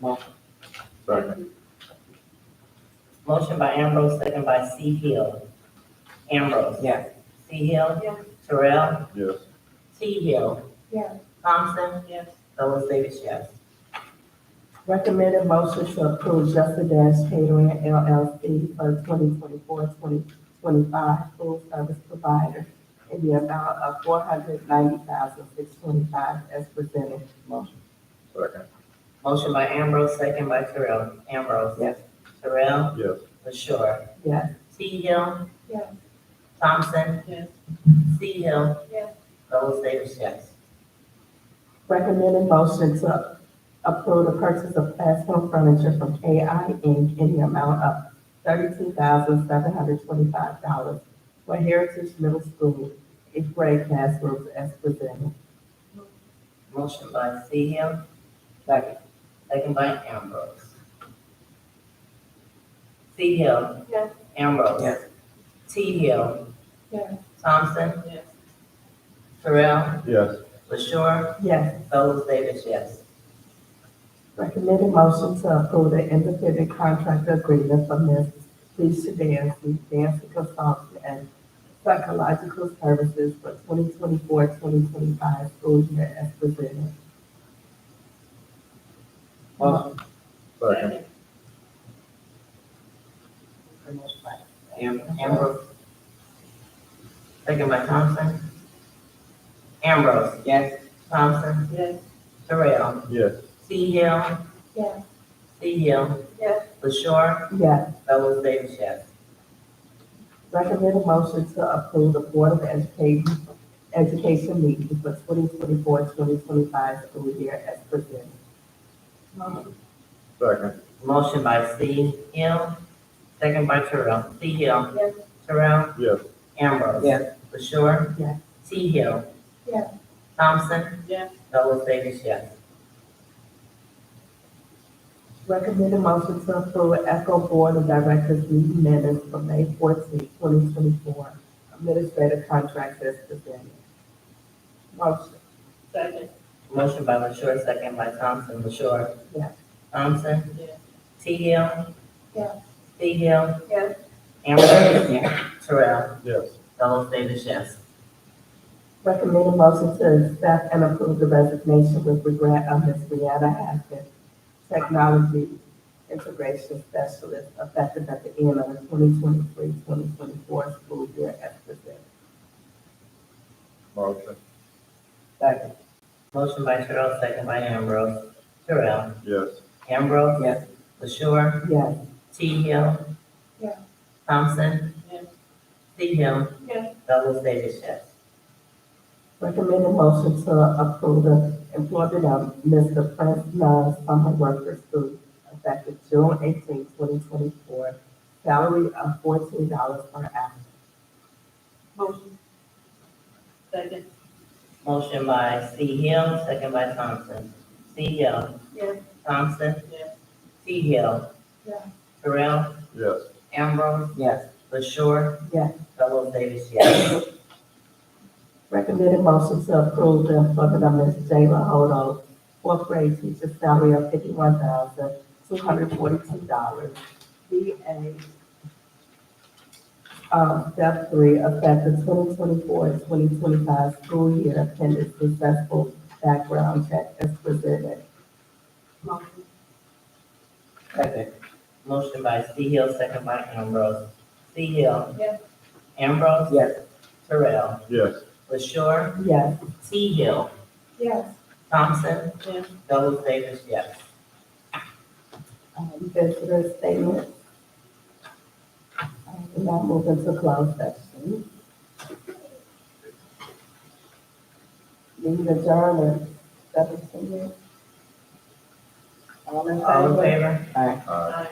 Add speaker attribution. Speaker 1: Motion.
Speaker 2: Second.
Speaker 3: Motion by Ambrose, second by C Hill. Ambrose.
Speaker 1: Yes.
Speaker 3: C Hill.
Speaker 4: Yes.
Speaker 3: Terrell.
Speaker 2: Yes.
Speaker 3: T Hill.
Speaker 4: Yes.
Speaker 3: Thompson.
Speaker 4: Yes.
Speaker 3: Fellows Davis, yes.
Speaker 1: Recommended motion to approve Justice Catering LLC for 2024-2025 full service provider in the amount of $490,625 as presented. Motion.
Speaker 2: Second.
Speaker 3: Motion by Ambrose, second by Terrell. Ambrose.
Speaker 1: Yes.
Speaker 3: Terrell.
Speaker 2: Yes.
Speaker 3: LaShure.
Speaker 1: Yes.
Speaker 3: T Hill.
Speaker 4: Yes.
Speaker 3: Thompson.
Speaker 4: Yes.
Speaker 3: C Hill.
Speaker 4: Yes.
Speaker 3: Fellows Davis, yes.
Speaker 1: Recommended motion to approve the purchase of classroom furniture from KI Inc. in the amount of $32,725 for Heritage Middle School eighth grade classrooms as presented.
Speaker 3: Motion by C Hill,
Speaker 1: Second.
Speaker 3: second by Ambrose. C Hill.
Speaker 4: Yes.
Speaker 3: Ambrose.
Speaker 1: Yes.
Speaker 3: T Hill.
Speaker 4: Yes.
Speaker 3: Thompson.
Speaker 4: Yes.
Speaker 3: Terrell.
Speaker 2: Yes.
Speaker 3: LaShure.
Speaker 1: Yes.
Speaker 3: Fellows Davis, yes.
Speaker 1: Recommended motion to approve the independent contractor agreement for Ms. Lisa Dancy, Dancy Consulting and Psychological Services for 2024-2025 school year as presented.
Speaker 3: Motion.
Speaker 2: Second.
Speaker 3: Am- Ambrose. Second by Thompson. Ambrose.
Speaker 1: Yes.
Speaker 3: Thompson.
Speaker 4: Yes.
Speaker 3: Terrell.
Speaker 2: Yes.
Speaker 3: C Hill.
Speaker 4: Yes.
Speaker 3: C Hill.
Speaker 4: Yes.
Speaker 3: LaShure.
Speaker 1: Yes.
Speaker 3: Fellows Davis, yes.
Speaker 1: Recommended motion to approve the Board of Education, Education meeting for 2024-2025 school year as presented.
Speaker 2: Second.
Speaker 3: Motion by C Hill. Second by Terrell. C Hill.
Speaker 4: Yes.
Speaker 3: Terrell.
Speaker 2: Yes.
Speaker 3: Ambrose.
Speaker 1: Yes.
Speaker 3: LaShure.
Speaker 1: Yes.
Speaker 3: T Hill.
Speaker 4: Yes.
Speaker 3: Thompson.
Speaker 4: Yes.
Speaker 3: Fellows Davis, yes.
Speaker 1: Recommended motion to approve Echo Board of Directors meeting minutes for May 14, twenty twenty-four. Administrative contracts as presented. Motion,
Speaker 4: Second.
Speaker 3: Motion by LaShure, second by Thompson. LaShure.
Speaker 1: Yes.
Speaker 3: Thompson.
Speaker 4: Yes.
Speaker 3: T Hill.
Speaker 4: Yes.
Speaker 3: C Hill.
Speaker 4: Yes.
Speaker 3: Ambrose. Terrell.
Speaker 2: Yes.
Speaker 3: Fellows Davis, yes.
Speaker 1: recommended motion to accept and approve the resignation with regret of Ms. Brianna Haskins, Technology Integration Specialist, effective at the end of the 2023-2024 school year as presented.
Speaker 2: Motion.
Speaker 1: Second.
Speaker 3: Motion by Terrell, second by Ambrose. Terrell.
Speaker 2: Yes.
Speaker 3: Ambrose.
Speaker 1: Yes.
Speaker 3: LaShure.
Speaker 1: Yes.
Speaker 3: T Hill.
Speaker 4: Yes.
Speaker 3: Thompson.
Speaker 4: Yes.
Speaker 3: C Hill.
Speaker 4: Yes.
Speaker 3: Fellows Davis, yes.
Speaker 1: Recommended motion to approve the employment of Mr. Prince Love summer workers through effective June 18, 2024, salary of fourteen dollars per hour.
Speaker 4: Motion. Second.
Speaker 3: Motion by C Hill, second by Thompson. C Hill.
Speaker 4: Yes.
Speaker 3: Thompson.
Speaker 4: Yes.
Speaker 3: C Hill.
Speaker 4: Yes.
Speaker 3: Terrell.
Speaker 2: Yes.
Speaker 3: Ambrose.
Speaker 1: Yes.
Speaker 3: LaShure.
Speaker 1: Yes.
Speaker 3: Fellows Davis, yes.
Speaker 1: Recommended motion to approve the employment of Ms. Jayla Hodo, fourth grade teacher, salary of fifty-one thousand, two hundred forty-two dollars. BA, um, step three, effective 2024-2025 school year, pending successful background check as presented.
Speaker 4: Motion.
Speaker 1: Second.
Speaker 3: Motion by C Hill, second by Ambrose. C Hill.
Speaker 4: Yes.
Speaker 3: Ambrose.
Speaker 1: Yes.
Speaker 3: Terrell.
Speaker 2: Yes.
Speaker 3: LaShure.
Speaker 1: Yes.
Speaker 3: T Hill.
Speaker 4: Yes.
Speaker 3: Thompson.
Speaker 4: Yes.
Speaker 3: Fellows Davis, yes.
Speaker 1: um, visitor statement. Um, And now move into closed session. Need a journal, seventeen. All in
Speaker 3: All in
Speaker 1: favor?
Speaker 3: favor?
Speaker 2: Aye.
Speaker 4: Aye.